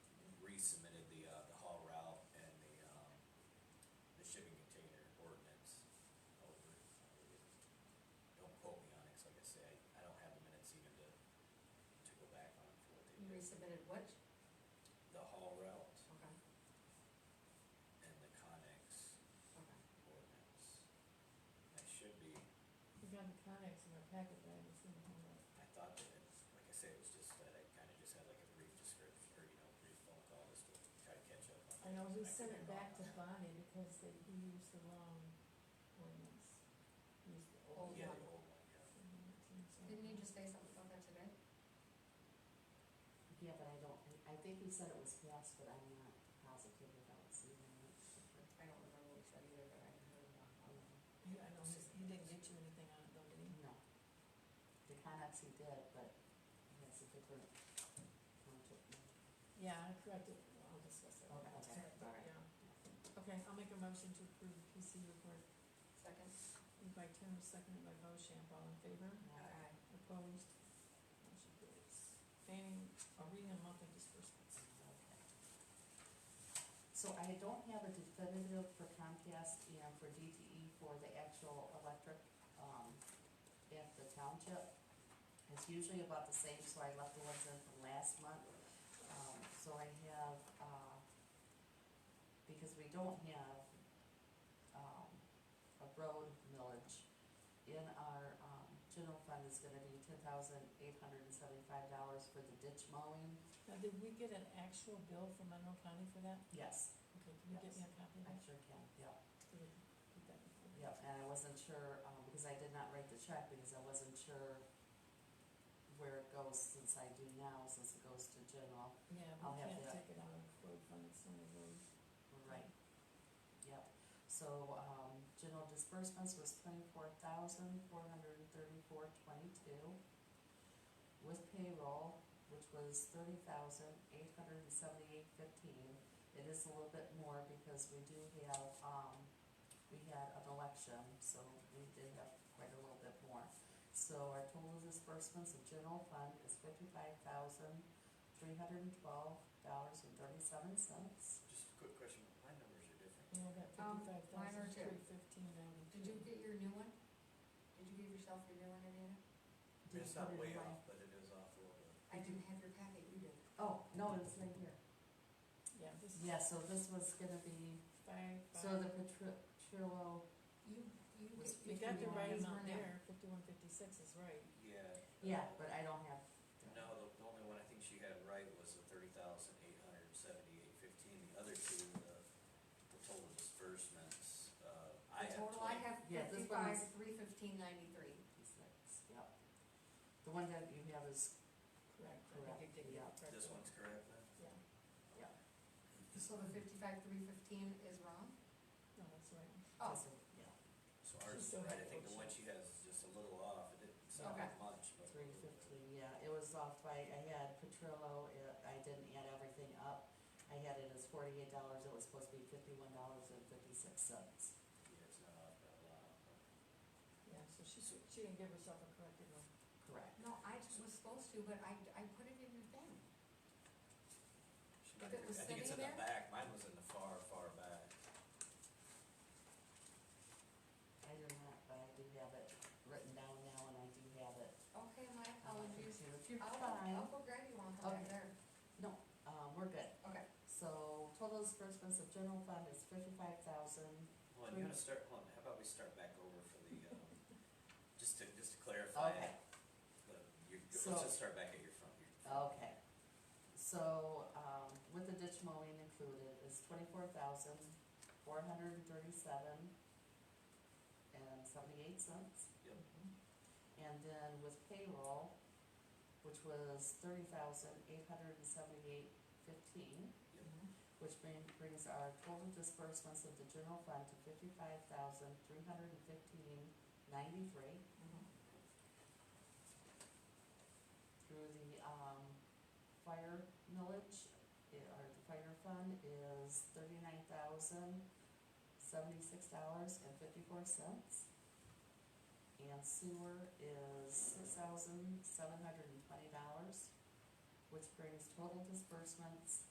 uh, um, resubmitted what? the haul route Okay, and the Connex okay. ordinance. That should be, We've got the Conex in our packet, but I just didn't have it. I thought that it, like I said, it was just that I kinda just had like a brief description, or you know, brief phone call just to try to catch up on. I know, we things. sent could it be back to wrong on that. Bonnie because they used the wrong ordinance. Used the old Old Yeah, one. the old one, yeah. Didn't you just say something about that today? Yeah, but I don't, I think we said it was passed, but I'm not positive about seeing it. I don't remember what we said either, but I heard about um, that. You, I know, he didn't get you anything on it though, did he? No. The Connex he did, but that's a different. concept. Yeah, I corrected, it. Well, I'll discuss it. Okay, okay, all right. Yeah. Okay, I'll make a motion to approve the PC report, Second? moved by Turner, seconded by Bochamp, all in favor? Aye. Opposed? Motion carries. Fanning, arena monthly disbursements. So I don't have a definitive for Comcast and for DTE for the actual electric, um, at the township. It's usually about the same, so I left the ones in from last month. Um, so I have, uh, because we don't have, um, a road millage in our, um, general fund is gonna be ten thousand eight hundred and seventy-five dollars for the ditch mowing. Now, did we get an actual bill from Monroe County for that? Yes. Okay, can you get me a copy of I that? sure can, yeah. Did we get that before? Yep, and I wasn't sure, um, because I did not write the check, because I wasn't sure where it goes since I do now, since it goes to general. Yeah, I'll we have can't that. take it out of road fund, it's not a road. Right. Yep, so, um, general disbursements was twenty-four thousand, four hundred and thirty-four, twenty-two. With payroll, which was thirty thousand, eight hundred and seventy-eight, fifteen. It is a little bit more because we do have, um, we had an election, so we did have quite a little bit more. So our total disbursements of general fund is fifty-five thousand, three hundred and twelve dollars and thirty-seven cents. Just a quick question, my numbers are different. You know, that Um, fifty-five mine are thousand, too. three fifteen ninety-two. Did you get your new one? Did you give yourself your new one, Indiana? Did It's you put not it way away? off, but it is off a little bit. I didn't have your packet, you did. Oh, no, it's right here. Yeah, this is Yeah, so this was gonna be, five, so the five. Petru- Petrillo, You, you. Was You get- got the your right these were amount not- there, fifty-one fifty-six is right. Yeah. yeah, uh, but I don't have. No, the, the only one I think she had right was the thirty thousand eight hundred seventy-eight fifteen, the other two, the, the total disbursements, uh, I The have. total 20 I have Yeah, this fifty-five, one is- three fifteen ninety-three. Fifty-six, yep. The one that you have is, Correct. I Correct, think you did yeah. get the correct This one's correct then? Yeah, So the fifty-five, three fifteen is wrong? no, that's right. Oh, is it- yeah, So She's ours is still right, I got think the both one she has is just a little off, it didn't sound Okay. like much, but. three fifteen, yeah, it was off by, I had Petrillo, it- I didn't add everything up. I had it as forty-eight dollars, it was supposed to be fifty-one dollars and fifty-six cents. Yeah, it's not off that lot. Yeah, so she, she didn't give herself a corrected one. Correct. no, I was supposed to, but I, I put it in your thing. She If might it have- was I think it's in sitting the back, mine was in the far, far back. I did not, but I do have it written down now and I do have it. Okay, my um, apologies. here. You're I'll, fine. I'll go grab you one from back Okay. there. Um, we're good. Okay. So total disbursements of general fund is fifty-five thousand. Well, you gotta start, hold on, how about we start back over for the, um, just to, just to clarify. Okay, the- your- Let's So- just start back at your front, your front okay. So, um, with the ditch mowing included is twenty-four thousand, four hundred and thirty-seven and seventy-eight cents. Yep. And then with payroll, which was thirty thousand, eight hundred and seventy-eight fifteen, Yep. which bring, brings our total disbursements of the general fund to fifty-five thousand, three hundred and fifteen, ninety-three. Mm-hmm. through the, um, fire millage, it- or the fire fund is thirty-nine thousand, seventy-six dollars and fifty-four cents. And sewer is six thousand, seven hundred and twenty dollars, which brings total disbursements